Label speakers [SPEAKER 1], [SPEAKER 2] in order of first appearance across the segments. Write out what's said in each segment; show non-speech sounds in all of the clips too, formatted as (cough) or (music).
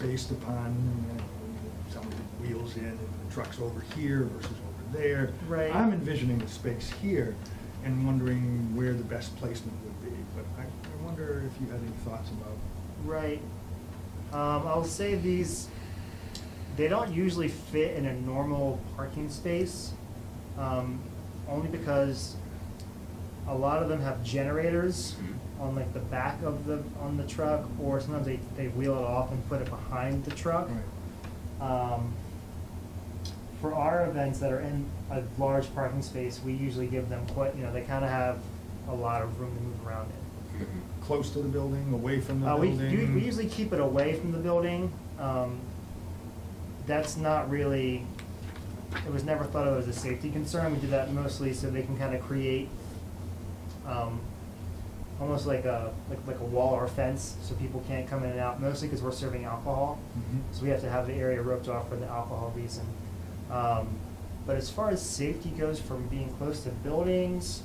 [SPEAKER 1] based upon you know, somebody wheels in, and the truck's over here versus over there.
[SPEAKER 2] Right.
[SPEAKER 1] I'm envisioning the space here and wondering where the best placement would be, but I, I wonder if you had any thoughts about,
[SPEAKER 2] Right. Um, I'll say these, they don't usually fit in a normal parking space, um, only because a lot of them have generators on like the back of the, on the truck, or sometimes they, they wheel it off and put it behind the truck.
[SPEAKER 1] right,
[SPEAKER 2] Um, for our events that are in a large parking space, we usually give them quite, you know, they kind of have a lot of room to move around in.
[SPEAKER 1] close to the building, away from the
[SPEAKER 2] Uh, we,
[SPEAKER 1] building?
[SPEAKER 2] u- we usually keep it away from the building. Um, that's not really, it was never thought of as a safety concern. We do that mostly so they can kind of create, um, almost like a, like, like a wall or a fence, so people can't come in and out, mostly because we're serving alcohol.
[SPEAKER 1] Mhm.
[SPEAKER 2] So we have to have the area roped off for the alcohol reason. Um, but as far as safety goes from being close to buildings,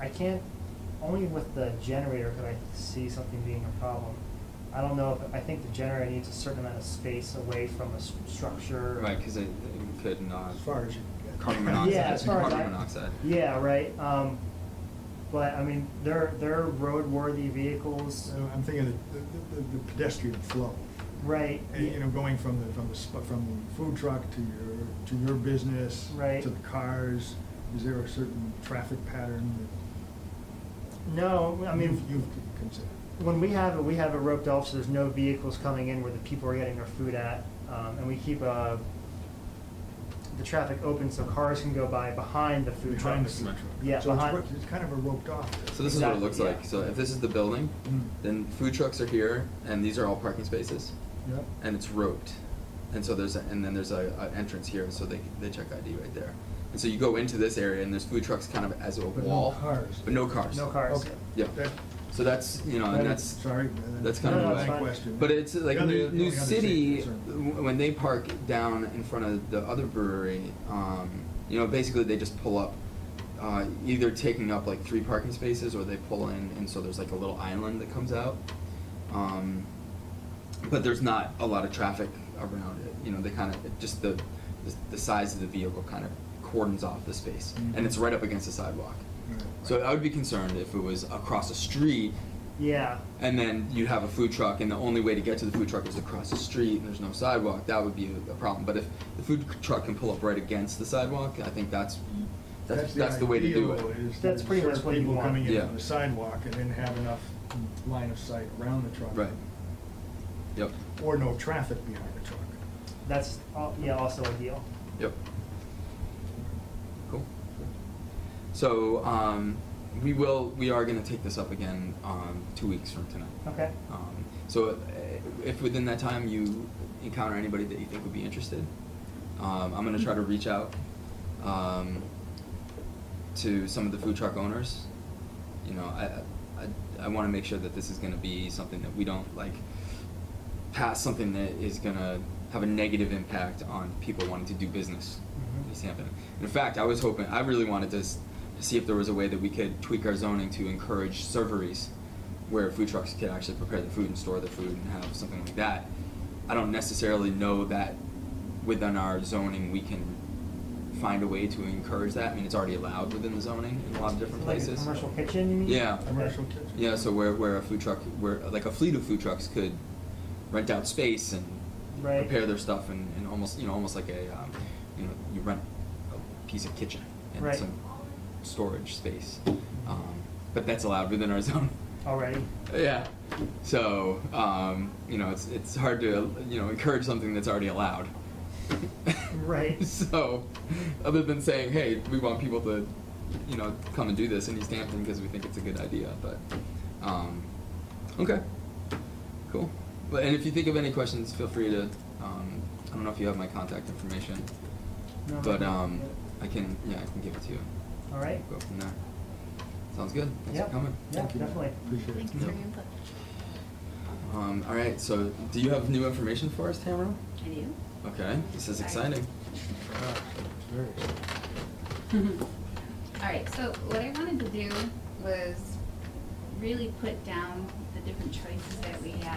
[SPEAKER 2] I can't, only with the generator could I see something being a problem. I don't know if, I think the generator needs a certain amount of space away from a s- structure.
[SPEAKER 3] Right, because it, it could not.
[SPEAKER 1] As far as you can get.
[SPEAKER 3] Carbon monoxide.
[SPEAKER 2] Yeah, as far as I-
[SPEAKER 3] Carbon monoxide.
[SPEAKER 2] Yeah, right, um, but I mean, they're, they're roadworthy vehicles,
[SPEAKER 1] So I'm thinking of the, the- the- the pedestrian flow.
[SPEAKER 2] right?
[SPEAKER 1] And, uh, you know, going from the, from the, sp- from the food truck to your, to your business.
[SPEAKER 2] Right.
[SPEAKER 1] To the cars, is there a certain traffic pattern
[SPEAKER 2] No,
[SPEAKER 1] that?
[SPEAKER 2] I mean.
[SPEAKER 1] You've you've considered.
[SPEAKER 2] When we have it, we have it roped off, so there's no vehicles coming in where the people are getting their food at, um, and we keep, uh, the traffic open so cars can go by behind the food
[SPEAKER 1] Behind the
[SPEAKER 2] trucks.
[SPEAKER 1] food truck.
[SPEAKER 2] Yeah,
[SPEAKER 1] So it's
[SPEAKER 2] behind-
[SPEAKER 1] ro- it's kind of a roped off.
[SPEAKER 3] So this is what
[SPEAKER 2] Exactly,
[SPEAKER 3] it looks
[SPEAKER 2] yeah. Mm-hmm.
[SPEAKER 3] like. So if this is the building,
[SPEAKER 1] Mm.
[SPEAKER 3] then food trucks are here, and these are all parking spaces,
[SPEAKER 1] Yep.
[SPEAKER 3] and it's roped, and so there's a, and then there's a, a entrance here, so they they check ID right there, and so you go into this area, and there's food trucks kind of as a
[SPEAKER 1] But no
[SPEAKER 3] wall,
[SPEAKER 1] cars.
[SPEAKER 3] but no cars.
[SPEAKER 2] No cars.
[SPEAKER 1] Okay.
[SPEAKER 3] Yeah.
[SPEAKER 1] That-
[SPEAKER 3] So that's you know,
[SPEAKER 1] that
[SPEAKER 3] and
[SPEAKER 1] is-
[SPEAKER 3] that's
[SPEAKER 1] Sorry. that-
[SPEAKER 3] that's kind of
[SPEAKER 2] No,
[SPEAKER 3] the
[SPEAKER 2] no,
[SPEAKER 3] way.
[SPEAKER 2] it's fine.
[SPEAKER 1] question.
[SPEAKER 3] But it's like
[SPEAKER 1] The other- um,
[SPEAKER 3] New,
[SPEAKER 1] the
[SPEAKER 3] New
[SPEAKER 1] only other
[SPEAKER 3] City,
[SPEAKER 1] safety concern.
[SPEAKER 3] w- when they park down in front of the other brewery, um, you know, basically they just pull up, uh, either taking up like three parking spaces or they pull in, and so there's like a little island that comes out. Um, but there's not a lot of traffic around it. You know, they kind of just the, the the size of the vehicle kind of cordons off the space,
[SPEAKER 1] Mhm.
[SPEAKER 3] and it's right up against the sidewalk.
[SPEAKER 1] Right.
[SPEAKER 3] So I would be concerned if it was across a street
[SPEAKER 2] Yeah,
[SPEAKER 3] and then you have a food truck, and the only way to get to the food truck is across the street, and there's no sidewalk. That would be a, a problem. But if the food truck can pull up right against the sidewalk, I think that's that's that's, the way to do
[SPEAKER 1] ideal,
[SPEAKER 3] it.
[SPEAKER 1] is
[SPEAKER 2] That's
[SPEAKER 1] to
[SPEAKER 2] pretty much
[SPEAKER 1] serve
[SPEAKER 2] what you
[SPEAKER 1] People
[SPEAKER 2] want.
[SPEAKER 1] coming in
[SPEAKER 3] Yeah.
[SPEAKER 1] on the sidewalk and then have enough line of sight around the truck.
[SPEAKER 3] Right. Yep.
[SPEAKER 1] Or no traffic behind the truck.
[SPEAKER 2] that's, al- yeah, also ideal.
[SPEAKER 3] Yep. Cool. So um, we will we are going to take this up again um, two weeks from tonight.
[SPEAKER 2] Okay,
[SPEAKER 3] Um, so uh, if within that time you encounter anybody that you think would be interested, um, I'm gonna try to reach out um, to some of the food truck owners. You know, I I, I want to make sure that this is gonna be something that we don't like pass something that is gonna have a negative impact on people wanting to do business
[SPEAKER 2] Mhm.
[SPEAKER 3] in East Hampton. In fact, I was hoping I really wanted to s- see if there was a way that we could tweak our zoning to encourage serveries where food trucks could actually prepare the food and store the food and have something like that. I don't necessarily know that within our zoning we can find a way to encourage that. I mean, it's already allowed within the zoning in a lot of different
[SPEAKER 2] like a
[SPEAKER 3] places.
[SPEAKER 2] commercial kitchen, you mean?
[SPEAKER 3] Yeah.
[SPEAKER 2] Okay.
[SPEAKER 1] Commercial kitchen.
[SPEAKER 3] Uh, Yeah, so where, where a food truck, where like a fleet of food trucks could rent out space and
[SPEAKER 2] Right.
[SPEAKER 3] prepare their stuff and, and almost you know almost like a um, you know you rent a piece of kitchen and
[SPEAKER 2] Right.
[SPEAKER 3] some storage space, um, but that's allowed within our (laughs) zone.
[SPEAKER 2] Alrighty,
[SPEAKER 3] Yeah. So, um, you know, it's it's hard to you know encourage something that's already allowed. (laughs)
[SPEAKER 2] Right.
[SPEAKER 3] so, other than saying, hey, we want people to, you know, come and do this in East Hampton because we think it's a good idea, but, um, okay, cool. But and if you think of any questions, feel free to. Um, I don't know if you have my contact information,
[SPEAKER 2] No, I
[SPEAKER 3] but
[SPEAKER 2] don't.
[SPEAKER 3] um, I can yeah I can give it to you.
[SPEAKER 2] alright,
[SPEAKER 3] Go from there. Sounds good. Thanks
[SPEAKER 2] yeah,
[SPEAKER 3] for coming.
[SPEAKER 2] yeah,
[SPEAKER 1] Thank you.
[SPEAKER 2] definitely.
[SPEAKER 1] Appreciate it.
[SPEAKER 4] Thank you for
[SPEAKER 3] Yep.
[SPEAKER 4] your input.
[SPEAKER 3] Um, all right, so do you have new information for us, Tamara?
[SPEAKER 4] I do.
[SPEAKER 3] Okay, this is exciting.
[SPEAKER 1] Ah, it's very exciting.
[SPEAKER 4] (laughs) All right, so what I wanted to do was really put down the different choices that we have